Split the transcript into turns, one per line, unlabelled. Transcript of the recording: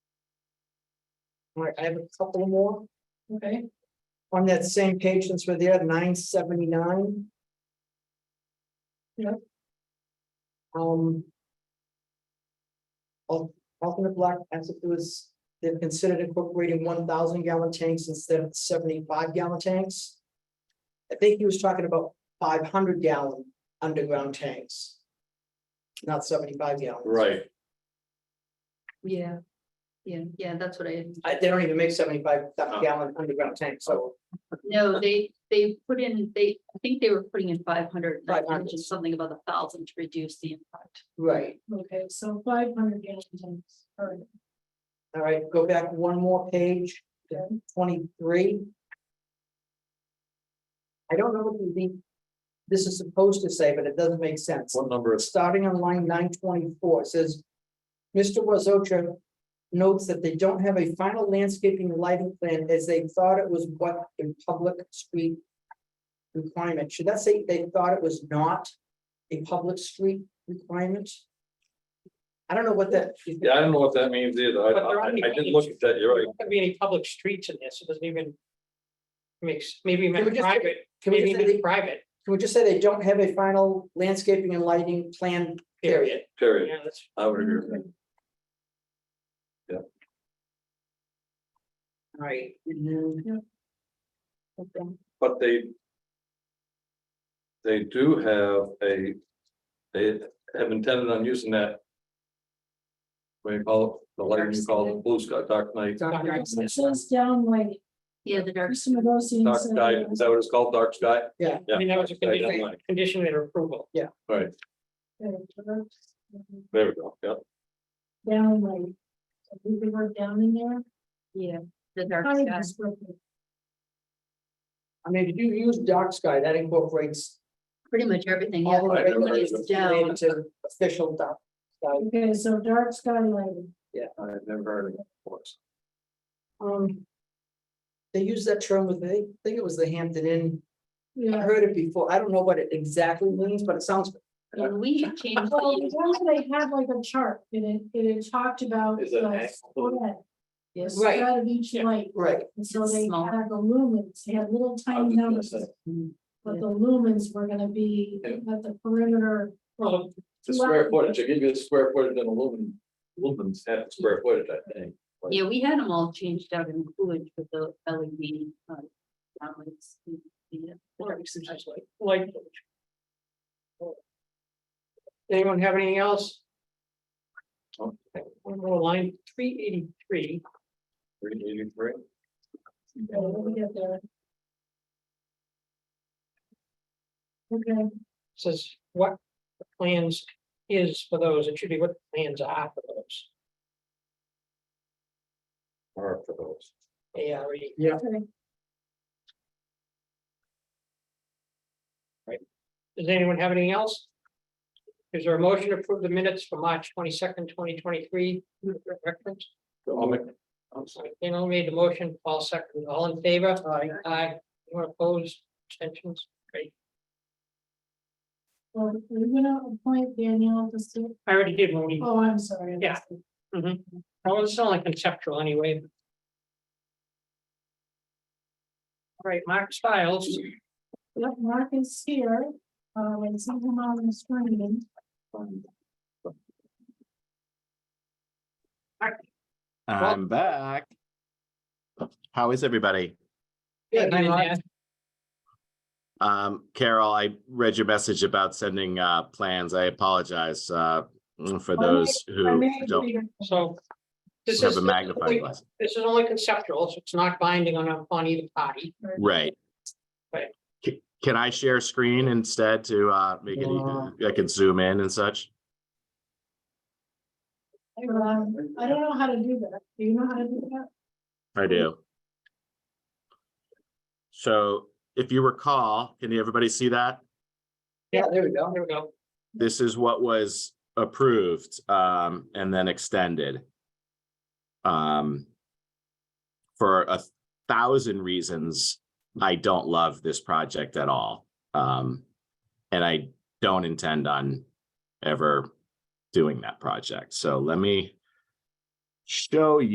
All right, I have a couple more
Okay,
on that same page since we're there, nine seventy-nine.
Yep.
Um. al- Alternate block, as if it was, they've considered incorporating one thousand gallon tanks instead of seventy-five gallon tanks. I think he was talking about five hundred gallon underground tanks. Not seventy-five gallon.
Right,
yeah. Yeah, yeah, that's what I,
I, they don't even make seventy-five gallon underground tanks, so
no, they, they put in, they, I think they were putting in five hundred.
500.
Something about a thousand to reduce the impact.
right.
Okay, so five hundred gallon tanks, alright.
All right, go back one more page,
Okay.
twenty-three. I don't know what the, this is supposed to say, but it doesn't make sense.
what number is,
Starting on line nine twenty-four, it says. Mr. Wazocha notes that they don't have a final landscaping and lighting plan as they thought it was what in public street. Requirement, should that say they thought it was not a public street requirement? I don't know what that.
yeah, I don't know what that means either, I,
But there
I,
aren't
I didn't
any-
look at that, you're
There
right,
aren't gonna be any public streets in this, it doesn't even. Makes, maybe
Can we
even
just-
private,
Can we
maybe
just say they-
even private,
Can we just say they don't have a final landscaping and lighting plan,
period,
period?
period,
yeah, that's,
I would agree with that.
Right. And then-
But they. They do have a, they have intended on using that. What do you call it, the lighting you call it, blue sky, dark night,
Dr.
Dr.
Johnson,
It says downlight,
Yeah, the dark,
Mr. Magosian
dark
said,
sky, is that what it's called, dark sky?
Yeah.
Yeah.
I mean, that was a
dark sky, dark
condition,
night.
condition of approval.
Right,
uh,
there we go, yeah,
Downlight. So we could work down in there.
yeah, the dark
Kind of
sky.
just work it.
I mean, if you use dark sky, that incorporates
pretty much everything, yeah.
all the
I never heard
Everything's
of it.
down.
related to official dark. sky.
Okay, so dark sky lighting.
I've never heard of it, of course.
Um. They use that term with, I think it was the Hampton Inn. I
Yeah.
heard it before. I don't know what it exactly means, but it sounds,
And we had changed.
Well,
the-
once they had like a chart and it, and it talked about.
Is it an
the
actual-
spread, the
Yes. Right.
Spread of each light,
right,
and so they
Small.
had the lumens, they had little
I was
tiny
just gonna
numbers,
say,
but the lumens were gonna be
Yeah.
at the perimeter.
Well,
The square footage, I give you the square footage and aluminum, aluminum's half the square footage, I think.
Yeah, we had them all changed out in Coolidge with the LED. um, downlights, yeah, the dark sky.
like. Anyone have anything else?
Okay,
One more line, three eighty-three,
three eighty-three.
Okay, let me get there. Okay,
says what the plans is for those, it should be what the plans are for those,
Or for those.
A R E.
okay.
Does anyone have anything else? Is there a motion to approve the minutes for March twenty-second, twenty twenty-three? Reference,
I'll make, I'm sorry.
Daniel made the motion, Paul second, all in favor? Aye. Aye, anyone opposed, Abstentions? Great,
Well, we're gonna appoint Danielle to sit,
I already did one, we-
oh, I'm sorry. I
Yeah.
missed it.
that was only conceptual anyway. All right, Mark Stiles,
Yep, Mark is here, um, and someone on the screen.
I'm back. How is everybody?
Yeah,
and then
Mark.
that-
Um, Carol, I read your message about sending uh plans. I apologize uh for
my-
those
I
who
may have
don't
read it.
so. This
have
is,
a magnifying glass.
this is only conceptual, so it's not binding on, on either party.
Right.
Right.
C- Can I share screen instead to uh make it, easier? I can zoom in and such?
Um, I don't know how to do that, do you know how to do that?
I do. So if you recall, can everybody see that?
yeah, there we go.
There we go.
This is what was approved um and then extended. Um. For a thousand reasons, I don't love this project at all. Um. And I don't intend on ever doing that project. So let me show you.